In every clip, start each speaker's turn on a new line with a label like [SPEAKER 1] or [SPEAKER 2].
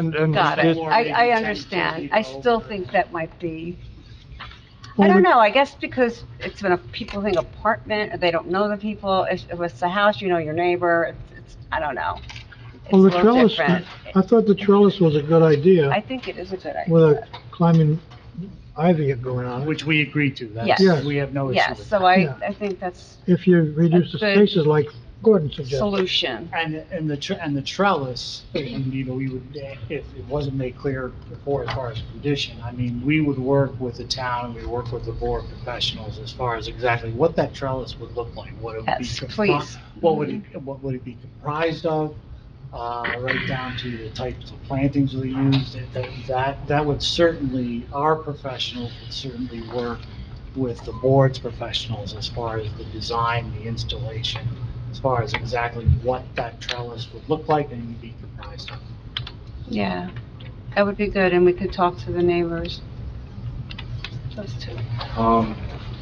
[SPEAKER 1] And, and.
[SPEAKER 2] Got it.
[SPEAKER 1] this-
[SPEAKER 2] I, I understand. I still think that might be, I don't know, I guess because it's when a- people think apartment, or they don't know the people. If if it's a house, you know your neighbor, it's, it's, I don't know. It's a
[SPEAKER 1] Well, the
[SPEAKER 2] little
[SPEAKER 1] trellis,
[SPEAKER 2] different.
[SPEAKER 1] I thought the trellis was a good
[SPEAKER 2] I
[SPEAKER 1] idea
[SPEAKER 2] think it is a good
[SPEAKER 1] with
[SPEAKER 2] idea.
[SPEAKER 1] a climbing ivy going on. it.
[SPEAKER 3] Uh, Which we agreed to,
[SPEAKER 2] Yes.
[SPEAKER 3] that's, we have no issue
[SPEAKER 2] Yes,
[SPEAKER 3] with
[SPEAKER 2] so
[SPEAKER 3] that.
[SPEAKER 2] I,
[SPEAKER 1] Yeah.
[SPEAKER 2] I think that's
[SPEAKER 1] If you reduce the
[SPEAKER 2] That's good.
[SPEAKER 1] spaces like Gordon suggested.
[SPEAKER 2] solution.
[SPEAKER 3] And, and the, tr- and the trellis, and, you know, we would, eh, if it wasn't made clear before as far as condition, I mean, we would work with the town, and we work with the board professionals as far as exactly what that trellis would look like, what it would be.
[SPEAKER 2] Yes,
[SPEAKER 3] compri-
[SPEAKER 2] please.
[SPEAKER 3] What would it, what would it be comprised of, uh, right down to the types of plantings we used, that- that, that, that would certainly, our professionals would certainly work with the board's professionals as far as the design, the installation, as far as exactly what that trellis would look like and be comprised of.
[SPEAKER 2] Yeah, that would be good, and we could talk to the neighbors. Those two.
[SPEAKER 4] Um,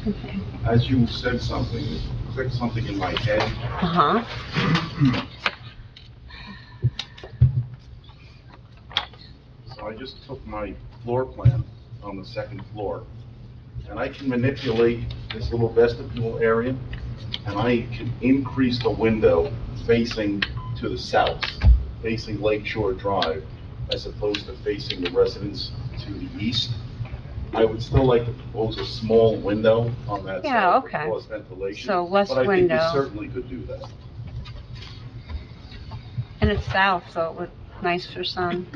[SPEAKER 2] Okay.
[SPEAKER 4] as you said something, it clicked something in my head.
[SPEAKER 2] Uh-huh.
[SPEAKER 4] So I just took my floor plan on the second floor, and I can manipulate this little vestibule area, and I can increase the window facing to the south, facing Lake Shore Drive, as opposed to facing the residence to the east. I would still like to propose a small window on that side.
[SPEAKER 2] Yeah,
[SPEAKER 4] for
[SPEAKER 2] okay.
[SPEAKER 4] cause ventilation.
[SPEAKER 2] So less
[SPEAKER 4] But I think
[SPEAKER 2] window.
[SPEAKER 4] you certainly could do that.
[SPEAKER 2] And it's south, so it would, nice for sun.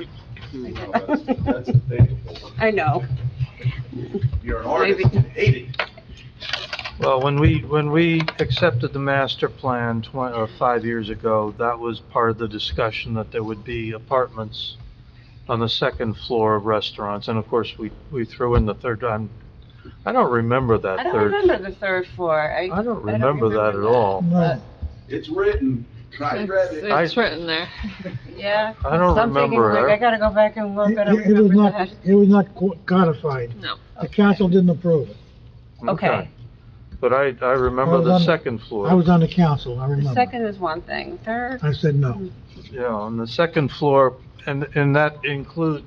[SPEAKER 4] No, that's- that's a big hole.
[SPEAKER 2] I know.
[SPEAKER 4] You're an
[SPEAKER 2] Maybe.
[SPEAKER 4] artist, you hate it.
[SPEAKER 5] Well, when we, when we accepted the master plan twen, or five years ago, that was part of the discussion that there would be apartments on the second floor of restaurants, and of course, we, we threw in the third, I'm, I don't remember that
[SPEAKER 2] I don't
[SPEAKER 5] third.
[SPEAKER 2] remember the third floor. I,
[SPEAKER 5] I don't remember that at all.
[SPEAKER 1] Right.
[SPEAKER 4] It's written, I read it.
[SPEAKER 5] I-
[SPEAKER 6] It's written there.
[SPEAKER 2] Yeah.
[SPEAKER 5] I don't
[SPEAKER 2] So I'm thinking, like,
[SPEAKER 5] remember it.
[SPEAKER 2] I gotta go back and look.
[SPEAKER 1] It
[SPEAKER 2] I don't
[SPEAKER 1] it- it was
[SPEAKER 2] remember
[SPEAKER 1] not,
[SPEAKER 2] that.
[SPEAKER 1] it was not co- codified.
[SPEAKER 6] No.
[SPEAKER 1] The council didn't approve it.
[SPEAKER 2] Okay.
[SPEAKER 5] But I, I
[SPEAKER 1] I
[SPEAKER 5] remember
[SPEAKER 1] was
[SPEAKER 5] the
[SPEAKER 1] on-
[SPEAKER 5] second floor.
[SPEAKER 1] I was on the council, I
[SPEAKER 2] The
[SPEAKER 1] remember.
[SPEAKER 2] second is one thing. Third,
[SPEAKER 1] I said no.
[SPEAKER 5] Yeah, on the second floor, and, and that include,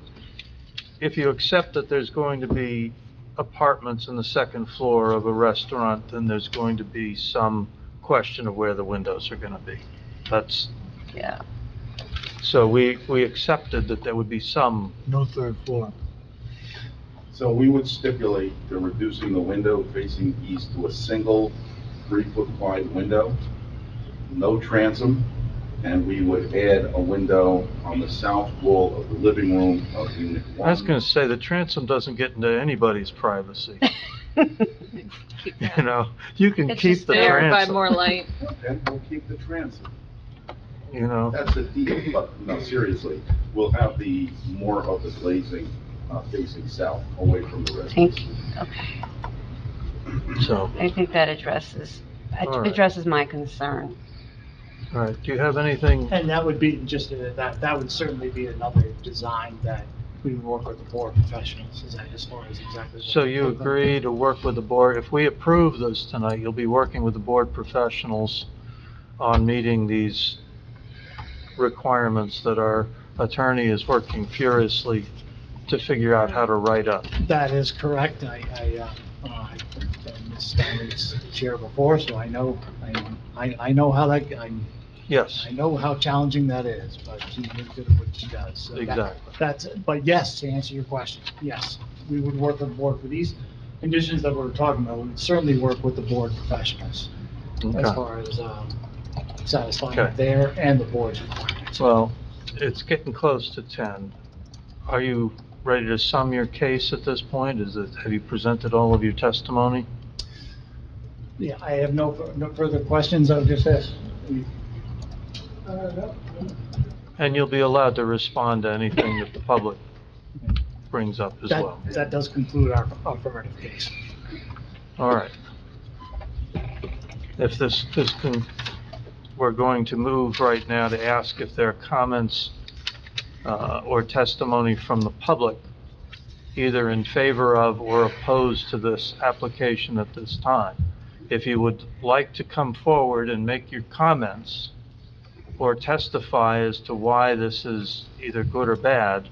[SPEAKER 5] if you accept that there's going to be apartments on the second floor of a restaurant, then there's going to be some question of where the windows are gonna be. That's,
[SPEAKER 2] yeah.
[SPEAKER 5] so we, we accepted that there would be some,
[SPEAKER 1] No third floor.
[SPEAKER 4] So we would stipulate the reducing the window facing east to a single three-foot wide window, no transom, and we would add a window on the south wall of the living room of unit one.
[SPEAKER 5] I was gonna say, the transom doesn't get into anybody's privacy,
[SPEAKER 6] Keep
[SPEAKER 5] you
[SPEAKER 6] that.
[SPEAKER 5] know? You can
[SPEAKER 6] It's
[SPEAKER 5] keep
[SPEAKER 6] just
[SPEAKER 5] the
[SPEAKER 6] there, provide more
[SPEAKER 5] transom,
[SPEAKER 6] light.
[SPEAKER 4] And we'll keep the transom.
[SPEAKER 5] you know?
[SPEAKER 4] That's the deal, but no, seriously, we'll have the, more of the glazing uh, facing south, away from the residence.
[SPEAKER 2] Thank you. Okay.
[SPEAKER 5] So,
[SPEAKER 2] I think that addresses, that
[SPEAKER 5] All right.
[SPEAKER 2] addresses my concern.
[SPEAKER 5] all right, do you have anything?
[SPEAKER 3] And that would be just, uh, that, that would certainly be another design that we would work with the board professionals as as far as exactly. what-
[SPEAKER 5] So you agree to work with the board, if we approve this tonight, you'll be working with the board professionals on meeting these requirements that our attorney is working furiously to figure out how to write up?
[SPEAKER 3] That is correct. I, I, uh, uh, I been Ms. Stanley's chair before, so I know, I, I I know how that, I,
[SPEAKER 5] Yes,
[SPEAKER 3] I know how challenging that is, but she is good at what she does. So that-
[SPEAKER 5] exactly.
[SPEAKER 3] That's, but yes, to answer your question, yes, we would work with the board for these conditions that we're talking about. We'd certainly work with the board professionals as
[SPEAKER 5] Okay.
[SPEAKER 3] far as, um, satisfying
[SPEAKER 5] Okay.
[SPEAKER 3] their and the board's requirements.
[SPEAKER 5] Well, it's getting close to 10. Are you ready to sum your case at this point? Is it, have you presented all of your testimony?
[SPEAKER 3] Yeah, I have no, no further questions. I would just ask,
[SPEAKER 5] And you'll be allowed to respond to anything that the public brings up as
[SPEAKER 3] that,
[SPEAKER 5] well.
[SPEAKER 3] that does conclude our affirmative case.
[SPEAKER 5] All right. If this, this can, we're going to move right now to ask if there are comments uh, or testimony from the public, either in favor of or opposed to this application at this time. If you would like to come forward and make your comments, or testify as to why this is either good or bad,